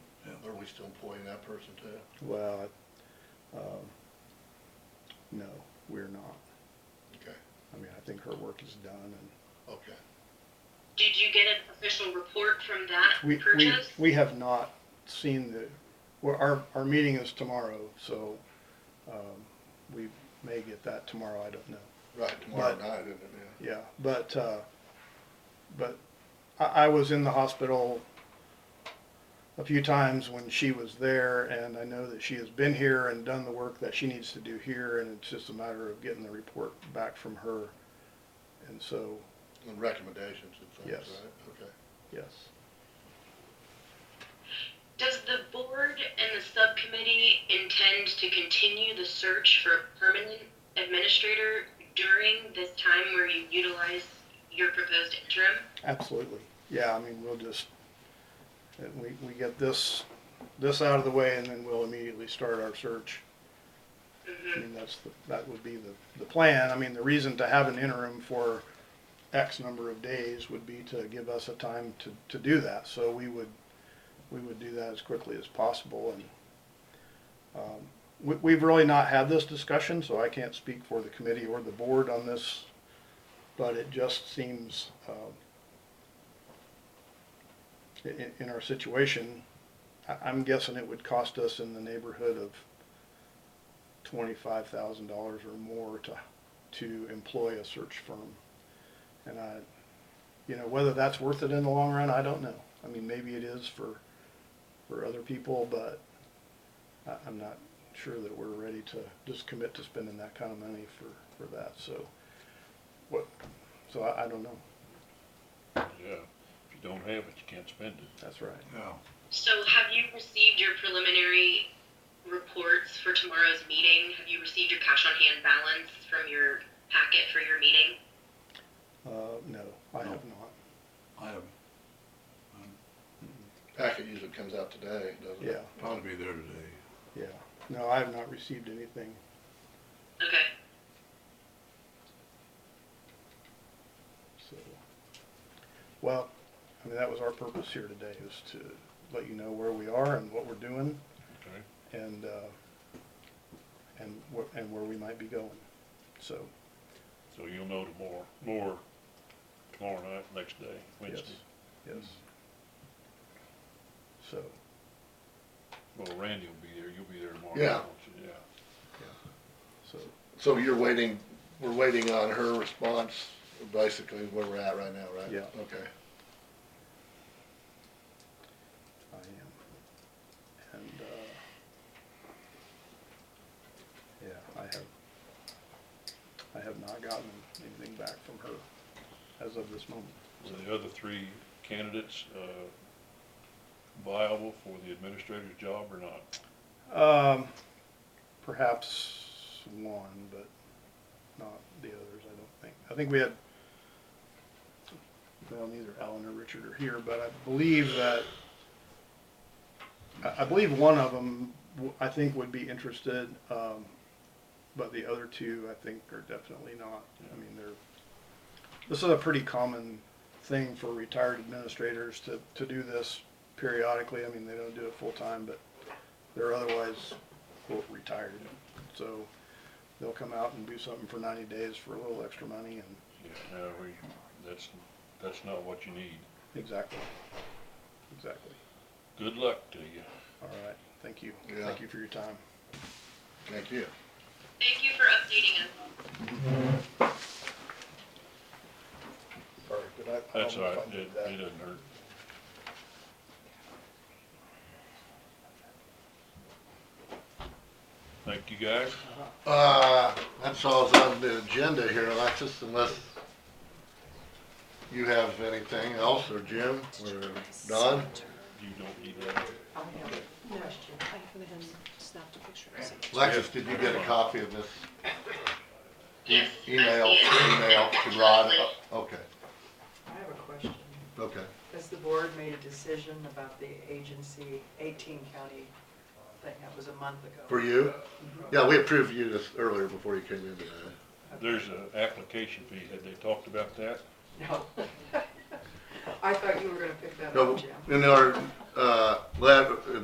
we still employing that person too? Well, um, no, we're not. Okay, I mean, I think her work is done and okay. Did you get an official report from that we, we, purchase? we have not seen the, well, our, our meeting is tomorrow, so, um, we may get that tomorrow, I don't know. Right, tomorrow But- night, isn't it, Yeah, but, uh, but I, I was in the hospital a few times when she was there, and I know that she has been here and done the work that she needs to do here, and it's just a matter of getting the report back from her. And so, yeah? And recommendations and things, Yes. right? Okay. yes. Does the board and the subcommittee intend to continue the search for a permanent administrator during this time where you utilize your proposed interim? Absolutely. Yeah, I mean, we'll just, uh, we, we get this, this out of the way and then we'll immediately start our search. I mean, that's, the that would be the, the plan. I mean, the reason to have an interim for X number of days would be to give us a time to, to do that. So we would, we would do that as quickly as possible and, um, we, we've really not had this discussion, so I can't speak for the committee or the board on this. But it just seems, um, i- i- in our situation, I- I'm guessing it would cost us in the neighborhood of twenty-five thousand dollars or more to, to employ a search firm. And I, you know, whether that's worth it in the long run, I don't know. I mean, maybe it is for, for other people, but I, I'm not sure that we're ready to just commit to spending that kind of money for, for that, so. What, so I, I don't know. Yeah, if you don't have it, you can't spend it. That's right. No. So have you received your preliminary reports for tomorrow's meeting? Have you received your cash on hand balance from your packet for your meeting? Uh, no, I have not. I haven't. Um, Packet usually comes out today, doesn't it? Yeah, I'll be there today. yeah. No, I have not received anything. Okay. So, well, I mean, that was our purpose here today, is to let you know where we are and what we're doing Okay. and, uh, and what, and where we might be going. So, So you'll know tomorrow, more tomorrow night, next day, yes, Wednesday. yes. So, Well, Randy will be there, you'll be there tomorrow. Yeah. won't you? Yeah. so, So you're waiting, we're waiting on her response, basically where we're at right now, right? Yeah. Okay. I am. And, uh, yeah, I have, I have not gotten anything back from her as of this moment. So the other three candidates, uh, viable for the administrator's job or not? Um, perhaps one, but not the others, I don't think. I think we had, well, neither Alan or Richard are here, but I believe that, I, I believe one of them, I think would be interested, um, but the other two, I think, are definitely not. I mean, they're, this is a pretty common thing for retired administrators to, to do this periodically. I mean, they don't do it full-time, but they're otherwise quote retired. So they'll come out and do something for ninety days for a little extra money and Yeah, no, we, that's, that's not what you need. exactly. Exactly. Good luck to you. All right. Thank you. Yeah. Thank you for your time. Thank you. Thank you for updating us. Sorry, did I? I That's don't all know right, if I it, did that. it doesn't hurt. Thank you, guys. Uh, that's all's on the agenda here, Alexis, unless you have anything else, or Jim, or Don? You don't need that. No, I haven't snapped a picture. so- Alexis, did you get a copy of this Yes. I see email, it. email to Rod? Oh, Absolutely. Okay, I have a question. okay. Has the board made a decision about the agency, 18 county thing? That was a month ago. For you? Yeah, we approved you this earlier before you came in today. There's an application fee, had they talked about that? No. I thought you were going to pick that No, up, Jim. in our, uh, letter,